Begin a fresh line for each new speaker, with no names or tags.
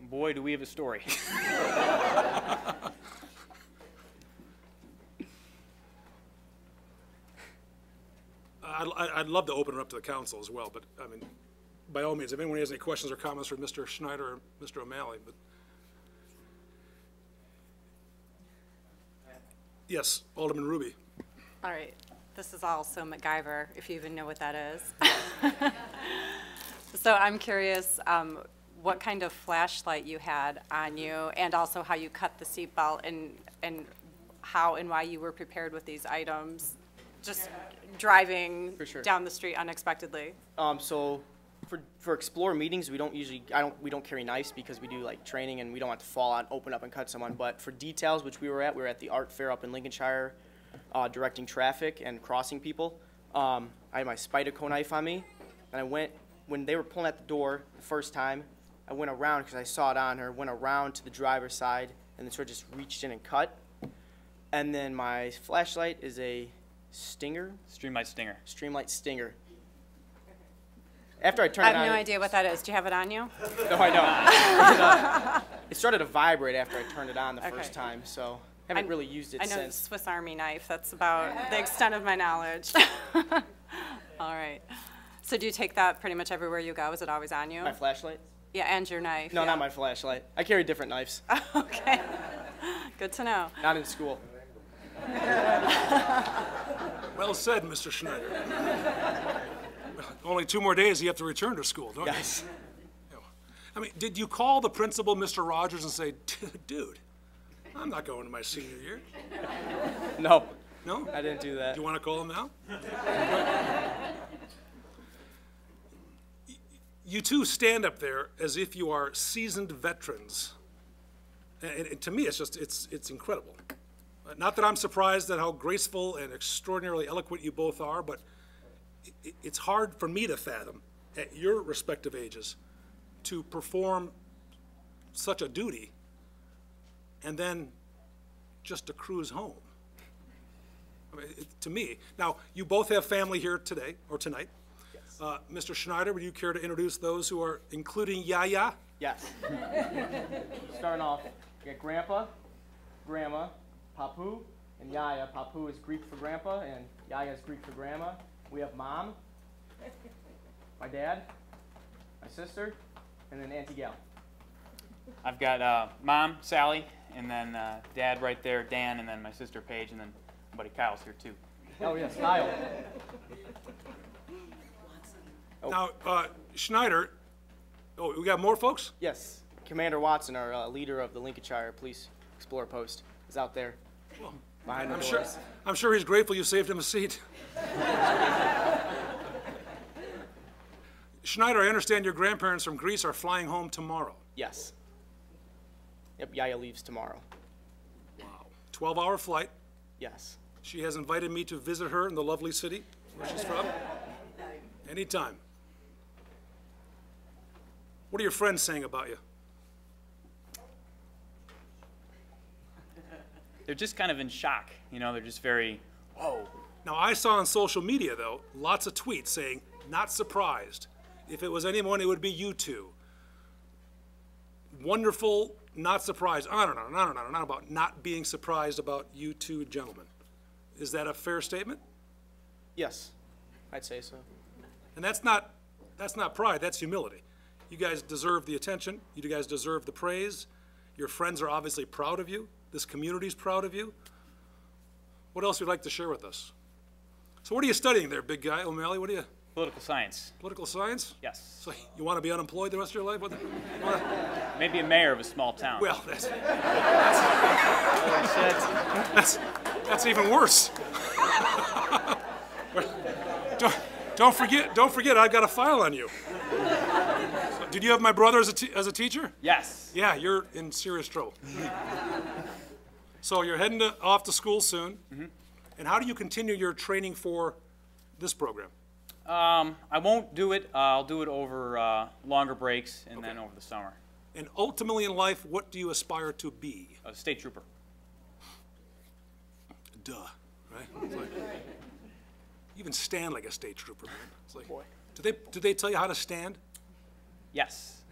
Boy, do we have a story.
I'd, I'd- I'd love to open it up to the council as well, but, I mean, by all means, if anyone has any questions or comments for Mr. Schneider or Mr. O'Malley, but. Yes, Alderman Ruby.
All right, this is also MacGyver, if you even know what that is. So I'm curious, um, what kind of flashlight you had on you, and also how you cut the seatbelt, and, and how and why you were prepared with these items, just driving
For sure.
down the street unexpectedly?
Um, so for, for explore meetings, we don't usually, I don't, we don't carry knives because we do like training and we don't want to fall on, open up and cut someone. But for details, which we were at, we were at the art fair up in Lincolnshire, uh, directing traffic and crossing people. Um, I had my Spyderco knife on me and I went, when they were pulling at the door the first time, I went around because I saw it on her, went around to the driver's side and then sort of just reached in and cut. And then my flashlight is a Stinger,
Streamlight Stinger.
Streamlight Stinger. After I
I
turned it on,
have no idea what that is. Do you have it on you?
No, I don't. It, uh, it started to vibrate after I turned it on the
Okay.
first time, so haven't
I'm-
really used it
I know
since.
Swiss Army knife, that's about the extent of my knowledge. All right. So do you take that pretty much everywhere you go? Is it always on you?
My flashlight?
Yeah, and your knife.
No,
yeah.
not my flashlight. I carry different knives.
Okay. Good to know.
not in school.
Well said, Mr. Schneider. Only two more days, you have to return to school, don't you?
Yes.
I mean, did you call the principal, Mr. Rogers, and say, "Dude, dude, I'm not going to my senior year?
No,
No?
I didn't do that.
Do you want to call him now? you two stand up there as if you are seasoned veterans. And, and to me, it's just, it's, it's incredible. Uh, Not that I'm surprised at how graceful and extraordinarily eloquent you both are, but i- i it's hard for me to fathom, at your respective ages, to perform such a duty and then just to cruise home. I mean, it- to me. Now, you both have family here today, or tonight. Uh, Mr. Schneider, would you care to introduce those who are, including Yaya?
Yes. Starting off, we got grandpa, grandma, papu, and yaya. Papu is Greek for grandpa, and yaya is Greek for grandma. We have mom, my dad, my sister, and then Auntie Gal.
I've got uh, mom, Sally, and then uh, dad right there, Dan, and then my sister Paige, and then my buddy Kyle's here too.
Oh, yes, Kyle.
Now, uh, Schneider, oh, we got more folks?
Yes, Commander Watson, our uh, leader of the Lincolnshire Police Explorer Post, is out there. Behind the
I'm
doors.
sure, I'm sure he's grateful you saved him a seat. Schneider, I understand your grandparents from Greece are flying home tomorrow.
Yes. Yep, Yaya leaves tomorrow.
12-hour flight.
Yes.
She has invited me to visit her in the lovely city where she's from. Anytime. What are your friends saying about you?
They're just kind of in shock, you know. They're just very, whoa.
Now, I saw on social media, though, lots of tweets saying, not surprised. If it was anyone, it would be you two. Wonderful, not surprised. On and on and on and on and on about not being surprised about you two gentlemen. Is that a fair statement?
Yes, I'd say so.
And that's not, that's not pride, that's humility. You guys deserve the attention, you guys deserve the praise. Your friends are obviously proud of you, this community's proud of you. What else would you like to share with us? So what are you studying there, big guy O'Malley? What are you,
Political science.
political science?
Yes.
So you want to be unemployed the rest of your life? What the- you wanna-
Maybe a mayor of a small town.
Well, that's, that's, that's even worse. Don't, don't forget, don't forget, I've got a file on you. So Did you have my brother as a, te- as a teacher?
yes.
Yeah, you're in serious trouble. So you're heading to, off to school soon. And how do you continue your training for this program?
Um, I won't do it. Uh, I'll do it over uh, longer breaks and then over the summer.
And ultimately in life, what do you aspire to be?
A state trooper.
Duh, right? It's like- You even stand like a state trooper, man. It's like, do they, do they tell you how to stand?
Yes.